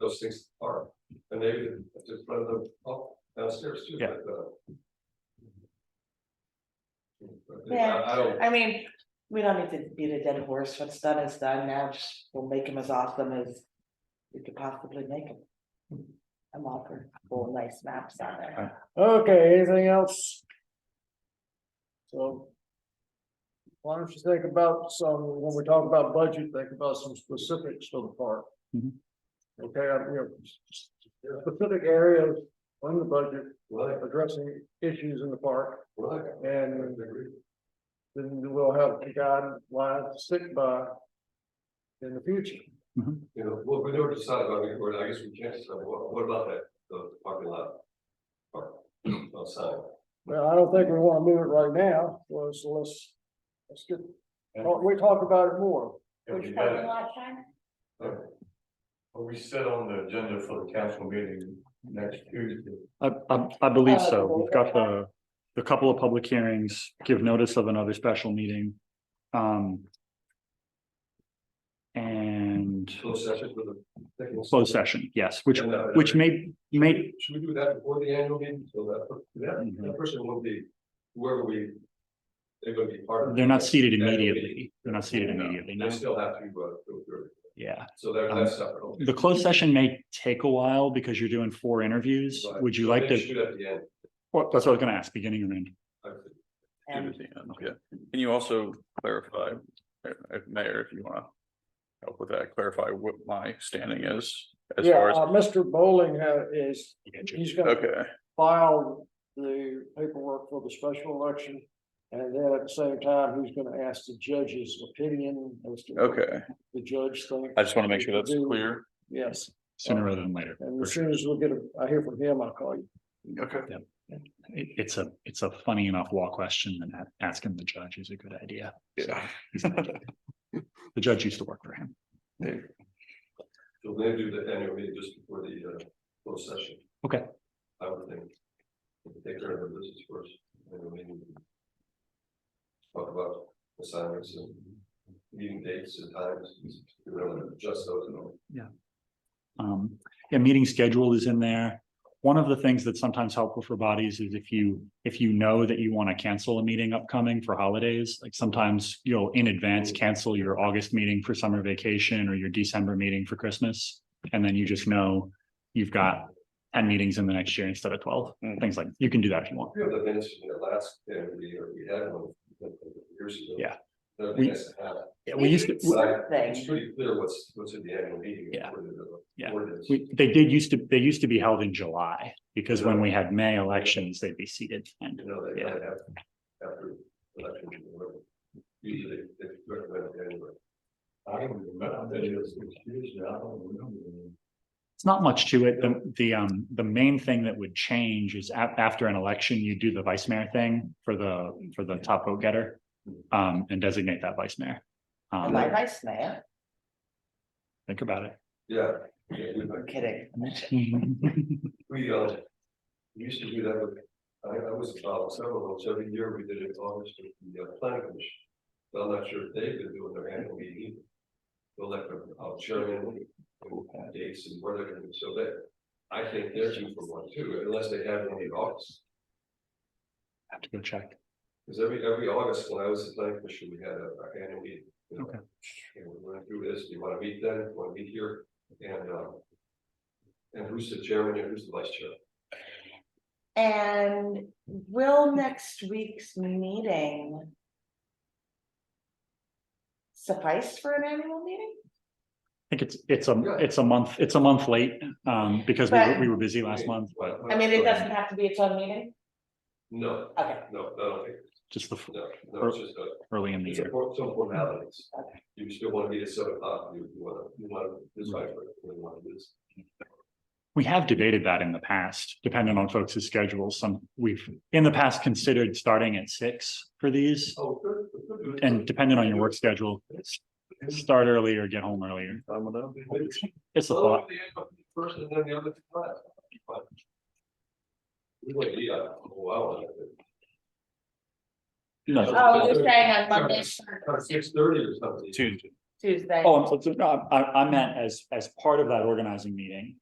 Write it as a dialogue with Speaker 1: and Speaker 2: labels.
Speaker 1: those things are, and maybe just run them up downstairs too.
Speaker 2: Yeah.
Speaker 1: but, uh, but I-
Speaker 3: Yeah.
Speaker 1: I don't,
Speaker 3: I mean, we don't need to beat a dead horse, what's done is done, now just we'll make him as awesome as we could possibly make him. I'm all for full nice maps on there.
Speaker 4: Okay, anything else? So. Why don't you think about some, when we talk about budget, think about some specifics for the park.
Speaker 2: Mhm.
Speaker 4: Okay, I'm, you know, specific areas on the budget,
Speaker 1: like,
Speaker 4: addressing issues in the park,
Speaker 1: like, I
Speaker 4: and
Speaker 1: agree.
Speaker 4: then we'll have a guideline to stick by. In the future,
Speaker 1: You know, well, we never decided, I mean, or I guess we can't decide, what, what about that, the parking lot? Or, outside,
Speaker 4: well, I don't think we wanna move it right now, well, so let's, let's get, we talk about it more.
Speaker 5: Which parking lot, Ken?
Speaker 1: Are we set on the agenda for the council meeting next Tuesday?
Speaker 2: I, I, I believe
Speaker 3: Uh,
Speaker 2: so. We've got
Speaker 3: the-
Speaker 2: the, the couple of public hearings, give notice of another special meeting. Um. And
Speaker 1: Close session for the. second-
Speaker 2: closed session, yes, which,
Speaker 1: And, uh,
Speaker 2: which may, may,
Speaker 1: Should we do that before the annual meeting, so that, that,
Speaker 2: Mhm.
Speaker 1: that person will be, whoever we. They're gonna be part of.
Speaker 2: they're not seated
Speaker 1: the annual meeting.
Speaker 2: immediately. They're not seated
Speaker 1: No,
Speaker 2: immediately, no.
Speaker 1: They still have to, uh, go through it.
Speaker 2: Yeah.
Speaker 1: so they're,
Speaker 2: Um,
Speaker 1: that's separate. okay.
Speaker 2: The closed session may take a while because you're doing four interviews.
Speaker 1: Right.
Speaker 2: Would you
Speaker 1: So
Speaker 2: like
Speaker 1: they
Speaker 2: to,
Speaker 1: Shoot at the end.
Speaker 2: well, that's what I was gonna ask, beginning or end?
Speaker 1: I think.
Speaker 5: Give
Speaker 3: And
Speaker 5: it to him, yeah. Can you also clarify, uh, uh, Mayor, if you wanna help with that, clarify what my standing is as
Speaker 4: Yeah,
Speaker 5: far as,
Speaker 4: uh, Mr. Bowling ha- is,
Speaker 2: I get you.
Speaker 4: he's gonna
Speaker 5: okay,
Speaker 4: file the paperwork for the special election. And then at the same time, he's gonna ask the judge's opinion as to what
Speaker 5: okay.
Speaker 4: the judge thinks.
Speaker 5: I just wanna make sure that's clear.
Speaker 4: Yes,
Speaker 2: Sooner rather than later.
Speaker 4: and
Speaker 2: for
Speaker 4: as
Speaker 2: sure.
Speaker 4: soon as we get, a- I hear from him, I'll call you.
Speaker 5: Okay.
Speaker 2: It, it's a, it's a funny enough law question and a- asking the judge is a good idea.
Speaker 5: Yeah.
Speaker 2: The judge used to work for him.
Speaker 1: So they do the annual meeting just before the, uh, closed session.
Speaker 2: Okay.
Speaker 1: I would think. Take care of the business first, annual meeting. Talk about assignments and meeting dates and times, you know, adjust those and all.
Speaker 2: Um, yeah, meeting schedule is in there. One of the things that's sometimes helpful for bodies is if you, if you know that you want to cancel a meeting upcoming for holidays, like sometimes you'll in advance cancel your August meeting for summer vacation or your December meeting for Christmas. And then you just know you've got ten meetings in the next year instead of twelve,
Speaker 5: Mm.
Speaker 2: things like, you can do that if you want.
Speaker 1: We have the minutes from the last, uh, we, we had one years ago.
Speaker 2: Yeah.
Speaker 1: That'd
Speaker 2: We-
Speaker 1: be nice to have.
Speaker 2: Yeah, we used to,
Speaker 1: But I-
Speaker 3: Something.
Speaker 1: It's pretty clear what's, what's in the annual meeting.
Speaker 2: Yeah.
Speaker 1: according to the
Speaker 2: Yeah.
Speaker 1: ordinance.
Speaker 2: We, they did used to, they used to be held in July, because when we had May elections, they'd be seated and
Speaker 1: You know, they
Speaker 2: Yeah.
Speaker 1: kind of have, after election, or whatever. usually they recommend it anyway. I don't remember, that is, usually I don't remember.
Speaker 2: it's not much to it. The, the, um, the main thing that would change is a- after an election, you do the vice mayor thing for the, for the top vote getter. Um, and designate that vice mayor.
Speaker 3: and my
Speaker 2: Um,
Speaker 3: vice mayor,
Speaker 2: think about it.
Speaker 1: Yeah, yeah, we,
Speaker 3: I'm kidding.
Speaker 1: we, uh, we used to do that with, I, I was involved several, of those. every year we did it in August with the uh, planning commission. But I'm not sure if they've been doing their annual meeting. either. They'll let them, I'll chairman, and dates and where they're gonna be, so that, I think they're due for one too, unless they have one in August.
Speaker 2: Have to go check.
Speaker 1: Cause every, every August, when I was at planning commission, we had a, our annual meeting. you know.
Speaker 2: Okay.
Speaker 1: And we went through this, do you wanna meet then, wanna meet here, and, um. And who's the chairman and who's the vice chair?
Speaker 3: And will next week's meeting suffice for an annual meeting?
Speaker 2: I think it's, it's a,
Speaker 1: Yeah.
Speaker 2: it's a month, it's a month late, um, because we, were-
Speaker 3: But-
Speaker 2: we were busy last month, but
Speaker 3: I mean, it doesn't have to be its own meeting,
Speaker 1: No,
Speaker 3: okay,
Speaker 1: no, I don't think,
Speaker 2: just the f-
Speaker 1: no, no, it's just, a-
Speaker 2: early in the
Speaker 1: it's a
Speaker 2: year.
Speaker 1: for- some formalities.
Speaker 3: Okay.
Speaker 1: You still wanna meet at seven o'clock, you, you wanna, you wanna decide what you wanna do. this.
Speaker 2: We have debated that in the past, depending on folks' schedules. Some, we've in the past considered starting at six for these.
Speaker 1: Oh, good, good, good.
Speaker 2: And depending on your work schedule, s- start early or get home earlier.
Speaker 5: Fine with that?
Speaker 2: It's a
Speaker 1: Well,
Speaker 2: thought.
Speaker 1: the end of the Oh, First and then the other. two last. But We would be, uh, wow.
Speaker 2: No,
Speaker 3: oh, you're saying on Monday,
Speaker 1: Six thirty or something.
Speaker 5: Tuesday.
Speaker 3: Tuesday?
Speaker 2: oh, I'm, so- so, no, I, I meant as, as part of that organizing meeting,